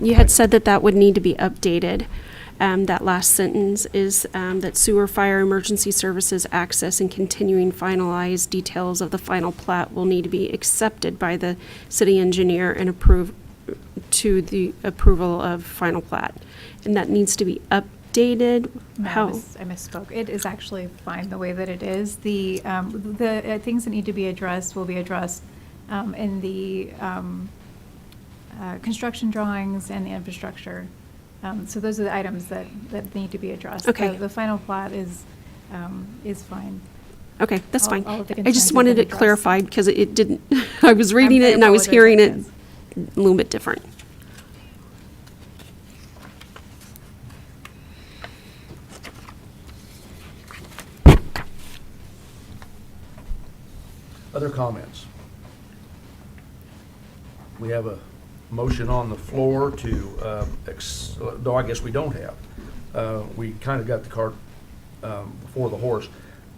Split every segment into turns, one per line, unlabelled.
You had said that that would need to be updated. Um, That last sentence is um, that sewer, fire, emergency services, access, and continuing finalized details of the final plat will need to be accepted by the city engineer and approved to the approval of final plat. And that needs to be updated.
No, Um, I
How?
mis- I misspoke. It is actually fine the way that it is. The, um, the uh, things that need to be addressed will be addressed um, in the um, uh, construction drawings and the infrastructure. Um, So those are the items that, that need to be addressed.
Okay.
The- The final plot is, um, is fine.
Okay, that's
All-
fine.
all of the
I
concerns
just
have
wanted
been
it
addressed.
clarified because it- it didn't, I was reading
I
it and I was
apologize,
hearing it
yes.
a little bit different.
Other comments? We have a motion on the floor to, um, ex- no, I guess we don't have. Uh, We kind of got the cart um, before the horse.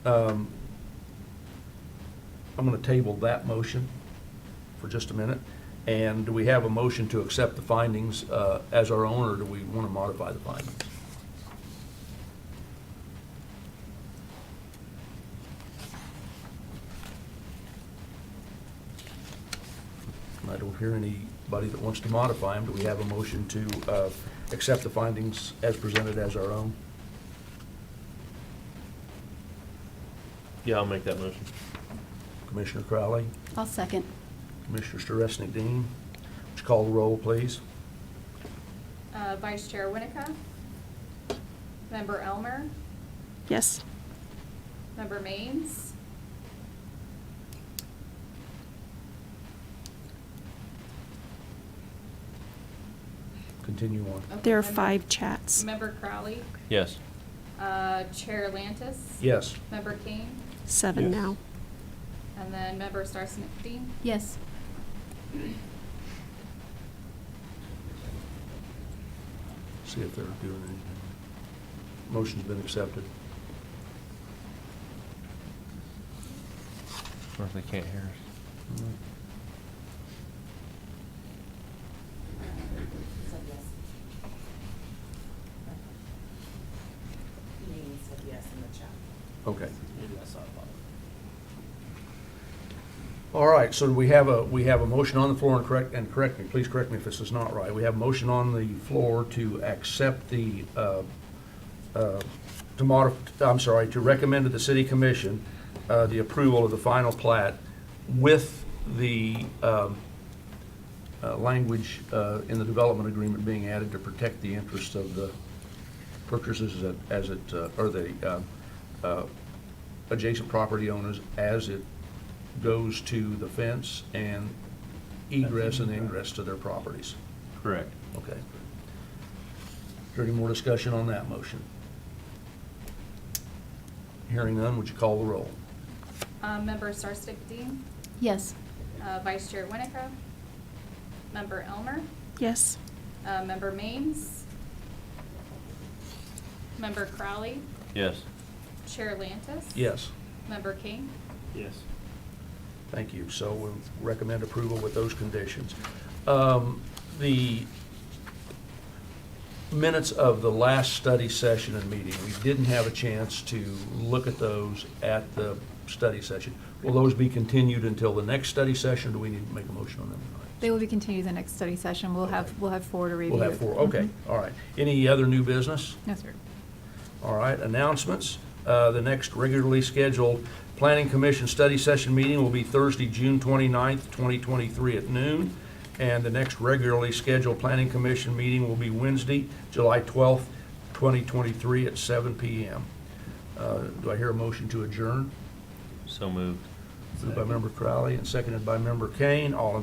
Um, I'm going to table that motion for just a minute. And do we have a motion to accept the findings uh, as our own, or do we want to modify the findings? And I don't hear anybody that wants to modify them. Do we have a motion to uh, accept the findings as presented as our own?
Yeah, I'll make that motion.
Commissioner Crowley,
I'll second.
Commissioner Sturesnik Dean, would you call the roll, please?
Uh, Vice Chair Winika. Member Elmer.
Yes?
Member Maines.
Continue on.
Okay,
There are
Member-
five chats.
Member Crowley.
Yes.
Uh, Chair Lantis.
Yes,
Member King.
Seven
Yes.
now.
And then Member Starsnick Dean.
Yes.
see if they're doing anything. Motion's been accepted.
Or if they can't hear us.
Nadine said yes in the chat.
Okay.
Maybe I saw it wrong.
All right, so we have a, we have a motion on the floor, and correct, and correct me, please correct me if this is not right. We have a motion on the floor to accept the, uh, uh, to modif, I'm sorry, to recommend to the city commission uh, the approval of the final plat with the um, uh, language uh, in the development agreement being added to protect the interests of the purchasers as it- as it, uh, or the uh, uh, adjacent property owners as it goes to the fence and egress and ingress to their properties.
Correct.
Okay. Is there any more discussion on that motion? Hearing none, would you call the roll?
Uh, Member Starsnick Dean.
Yes.
Uh, Vice Chair Winika. Member Elmer.
Yes?
Uh, Member Maines. Member Crowley.
Yes.
Chair Lantis.
Yes,
Member King.
Yes.
thank you. So we recommend approval with those conditions. Um, The minutes of the last study session and meeting, we didn't have a chance to look at those at the study session. Will those be continued until the next study session, or do we need to make a motion on them tonight?
They will be continued the next study session. We'll have,
Okay.
we'll have four to review.
We'll have four, okay,
Mhm.
all right. Any other new business?
No, sir.
All right, announcements. Uh, The next regularly scheduled Planning Commission study session meeting will be Thursday, June 29th, 2023 at noon. And the next regularly scheduled Planning Commission meeting will be Wednesday, July 12th, 2023 at 7 PM. Uh, Do I hear a motion to adjourn?
So moved.
Moved by Member Crowley and seconded by Member Kane. All in